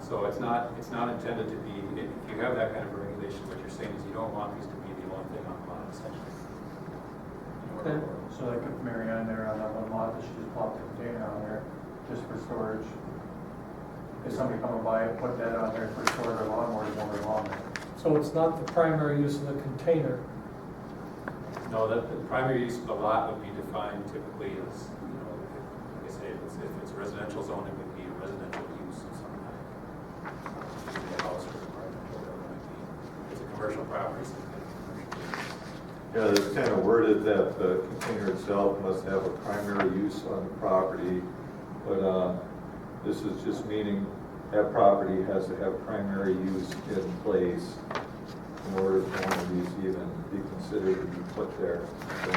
So it's not, it's not intended to be, if you have that kind of a regulation, what you're saying is you don't want these to be the only thing on the lot essentially. Okay, So they could marry on there on that one lot, that she just bought the container on there, just for storage. If somebody come and buy it, put that on there for storage or lawnmower, it's over lawnmower. So it's not the primary use of the container. No, the, the primary use of the lot would be defined typically as, you know, if- like I say, if it's, if it's residential zone, it would be a residential use of some kind. Could be a house or apartment, whatever it might be. If It's a commercial property, so it's gonna be commercial. Yeah, it's kind of worded that the container itself must have a primary use on the property, but uh, this is just meaning that property has to have primary use in place in order for one of these even be considered to be put there. So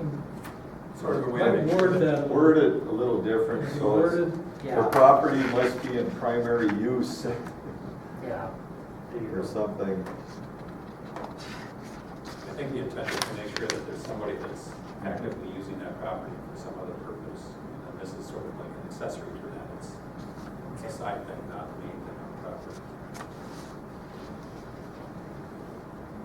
Can- Sort of a way to make I'd sure that. word that. Worded a little different, so Worded, it's, the property must be in primary use Yeah. or something. I think the intent is to make sure that there's somebody that's actively using that property for some other purpose. And then this is sort of like an accessory to that. It's, it's a side thing, not the main thing on the property.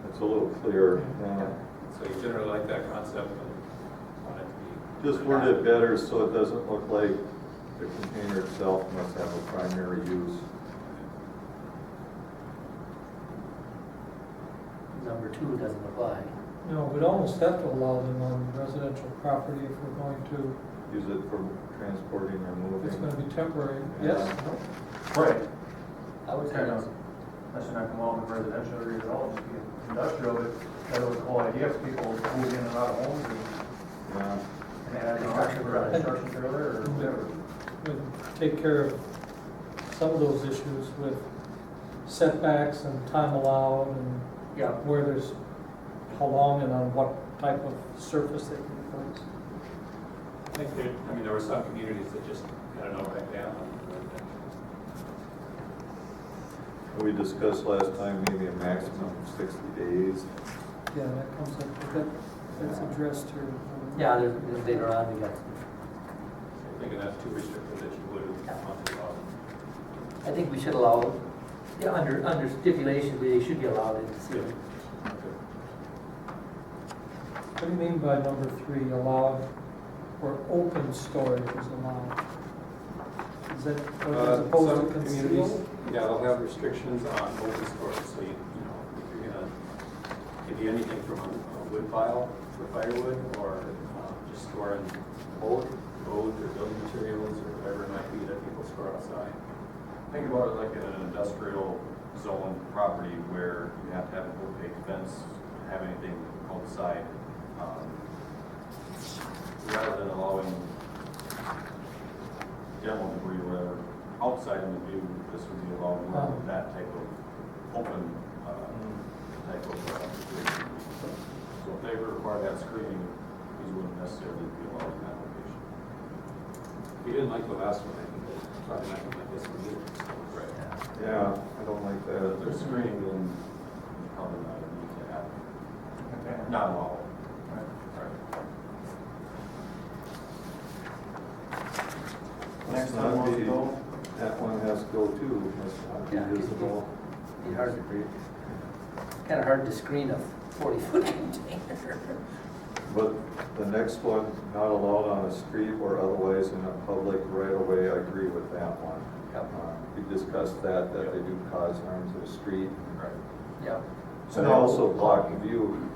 It's a little clearer now. So you generally like that concept, but want it to be. Just word it better so it doesn't look like the container itself must have a primary use. Number two doesn't apply. you know, we'd almost have to allow them on residential property if we're going to, Use it for transporting or it's gonna moving. be temporary, yes? Right. I would say Kind that's of, that's not come along with residential or at all, just be industrial, but that was the whole idea, if people move in and out of homes and, Yeah. and add an option for a construction trailer or whatever. We'd take care of some of those issues with setbacks and time allowed and Yeah. where there's, how long and on what type of surface they can be placed. I think there, I mean, there were some communities that just had an outright ban on residential. We discussed last time, maybe a maximum of sixty days. Yeah, that comes up, but that, that's addressed here. Yeah, there's, there's later on, we got, I'm thinking that's too restrictive that you would want to allow. I think we should allow, yeah, under, under stipulation, they should be allowed in the city. What do you mean by number three, allowed or open storage is allowed? Is that, as Uh, opposed some to communities, concealed? Yeah, they'll have restrictions on open storage, so you, you know, if you're gonna, give you anything from a a wood pile for firewood, or um, just storing old, old or building materials, or whatever it might be that people store outside. Think about it like in an industrial zone property where you have to have a wood big fence, have anything outside. um, Rather than allowing demo debris or whatever outside in the view, this would be allowed more of that type of open, uh, Mm-hmm. type of, uh, situation. So if they were required to have screening, these wouldn't necessarily be allowed in that location. We didn't like the last one, I think, but probably not gonna like this one either. Right. Yeah, I don't like If they're that. screening, then it's probably not a need to have, Okay. not allowed. Mm-hmm. Right. Next Must time, not we'll be- go. That one has to go too, must not Yeah. be visible. Be hard to read. Kinda hard to screen a forty-foot container. But the next one, not allowed on a street or otherwise in a public right of way, I agree with that one. Yep. Uh, We discussed that, that they do cause harm to the street. Right. Yeah, And they also block the view.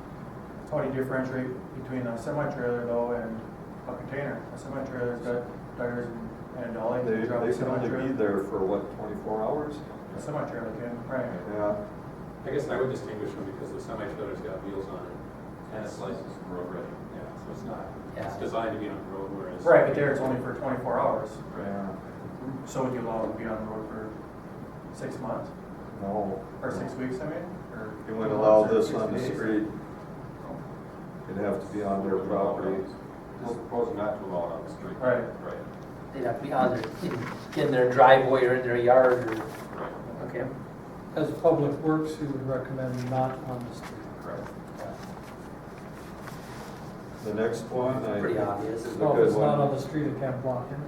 How do you differentiate between a semi-trailer though and a container? A semi-trailer's got tires and- and all, and They, you drop a they can only be semi-trailer. there for what, twenty-four hours? A semi-trailer can, right. Yeah, I guess I would distinguish them because the semi-trailer's got wheels on it, and it slices from road ready, yeah, so it's not, it's Yeah. designed to be on the road, whereas. Right, but there it's only for twenty-four hours, yeah, so would you allow it to be on the road for six months, no. or six weeks, I mean, or? You wouldn't allow this 60 on the days? street. It'd have to be on their property. Proposing not to allow it on the street. Right. Right, they'd have to be on their, in their driveway or in their yard or, right, okay. As public works, you would recommend not on the street. correct. The next one, I. Pretty obvious. is a Well, if good it's not one. on the street, it can't block in.